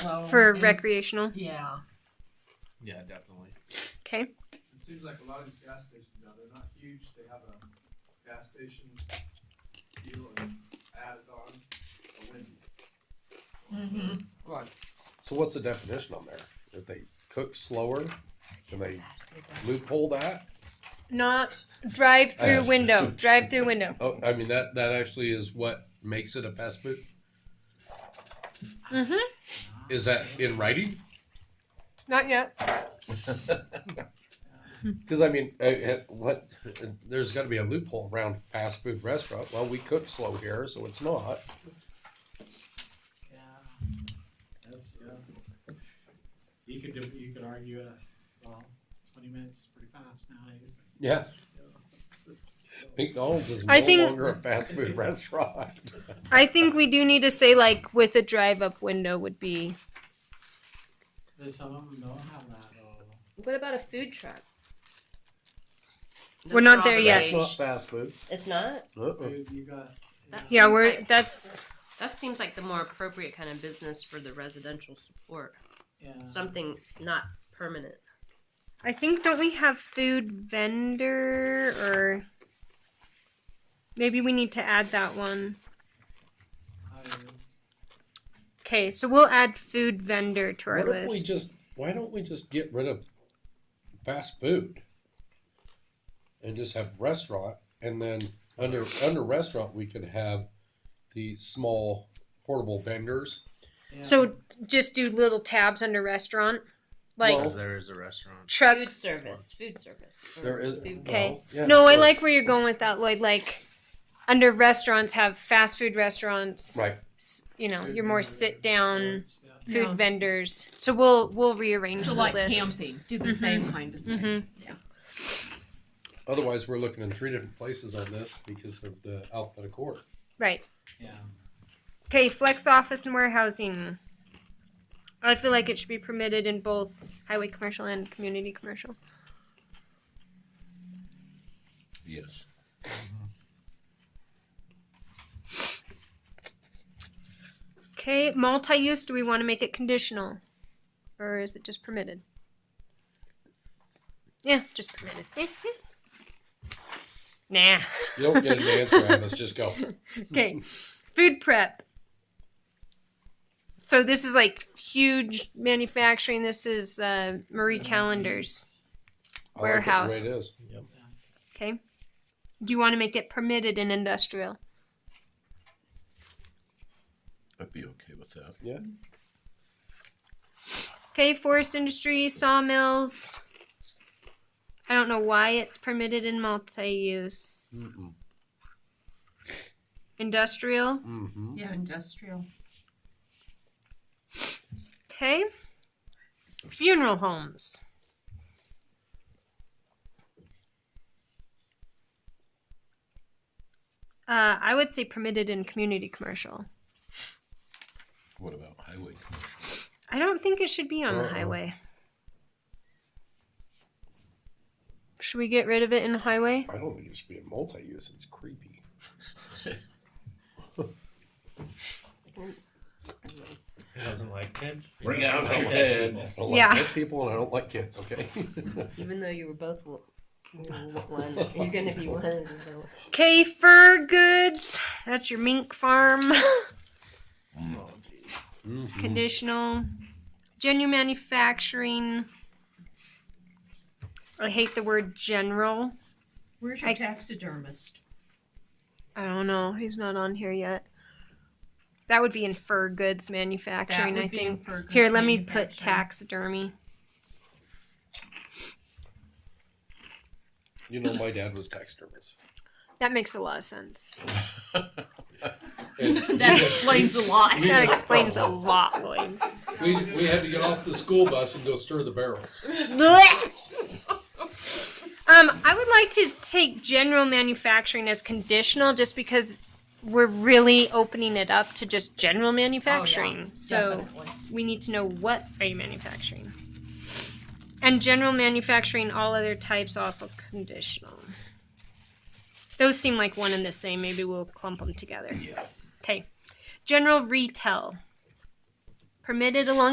So, for and- recreational. Yeah. Yeah, definitely. Okay. It seems like a lot of these gas stations now, they're not huge, they have a gas station deal and added on a Wendy's. Mm-hmm. Mhm. Right. So what's the definition on there? If they cook slower, can they loophole that? Not drive through Ash. window. Drive through window. Oh, I mean, that, that actually is what makes it a fast food? Mm-hmm. Is that in writing? Not yet. Because I mean, uh, uh, what? There's got to be a loophole around fast food restaurant. Well, we cook slow here, so it's not. Yeah. That's, yeah. You could, do- you could argue, uh, well, twenty minutes is pretty fast nowadays. Yeah, So- McDonald's is no I think- longer a fast food restaurant. I think we do need to say like with a drive up window would be. There's some of them don't have that though. What about a food truck? We're not there Strawberry. yet. That's not fast food. It's not. Uh-uh. Food, you got. That's- Yeah, Seems we're like- that's That seems like the more appropriate kind of business for the residential support. Yeah. Something not permanent. I think don't we have food vendor or maybe we need to add that one. I would- Okay, so we'll add food vendor to our What if we list. just? Why don't we just get rid of fast food and just have restaurant, and then under under restaurant we could have the small portable vendors. yeah. So just do little tabs under restaurant, like Well- Because there is a restaurant. Food trucks. service. Food service. or There is food- Okay. well, yeah, No, I sure. like where you're going with that, Lloyd. Like under restaurants, have fast food restaurants. right. s- You know, Food your more vendors, sit down yeah. food Yeah. vendors. So we'll we'll rearrange So the like list. camping, do the same kind of thing. hmm Otherwise, we're looking in three different places on this because of the alphabetical order. Right. Yeah. Okay, flex office and warehousing. I feel like it should be permitted in both highway commercial and community commercial. Yes. Okay, multi-use. Do we want to make it conditional, or is it just permitted? Yeah, just permitted. nah. You don't get an answer out of this. Just go. "Oh, Okay, food prep. So this is like huge manufacturing. This is uh, Marie Callender's. I like it the way Warehouse. it is. Okay. Do you want to make it permitted in industrial? I'd be okay with that. Okay, forest industry, sawmills. I don't know why it's permitted in multi-use. Mm-mm. Industrial. Mm-hmm. Yeah, industrial. Okay. Funeral homes. Uh, I would say permitted in community commercial. What about highway commercial? I don't think it should be on the Uh-uh. highway. Should we get rid of it in the highway? I don't think it should be a multi-use. It's creepy. Doesn't like kids. Bring out your head. I don't Yeah. like dead people and I don't like kids. Okay. Even though you were both wo- you were one, you're gonna be one. of the little- Okay, fur goods. That's your mink farm. Mm-hmm. Mhm. Conditional. Genuine manufacturing. I hate the word general. Where's your I- taxidermist? I don't know. He's not on here yet. That would be in fur goods manufacturing, I think. Here, let me put taxidermy. You know, my dad was taxidermist. That makes a lot of sense. And That explains a lot. That explains a lot, Lloyd. we, we had to get off the school bus and go stir the barrels. Blech. um, I would like to take general manufacturing as conditional just because we're really opening it up to just general manufacturing. So we need to know what are you manufacturing. And general manufacturing, all other types also conditional. Those seem like one and the same. Maybe we'll clump them together. Yeah. Okay. General retail. Permitted along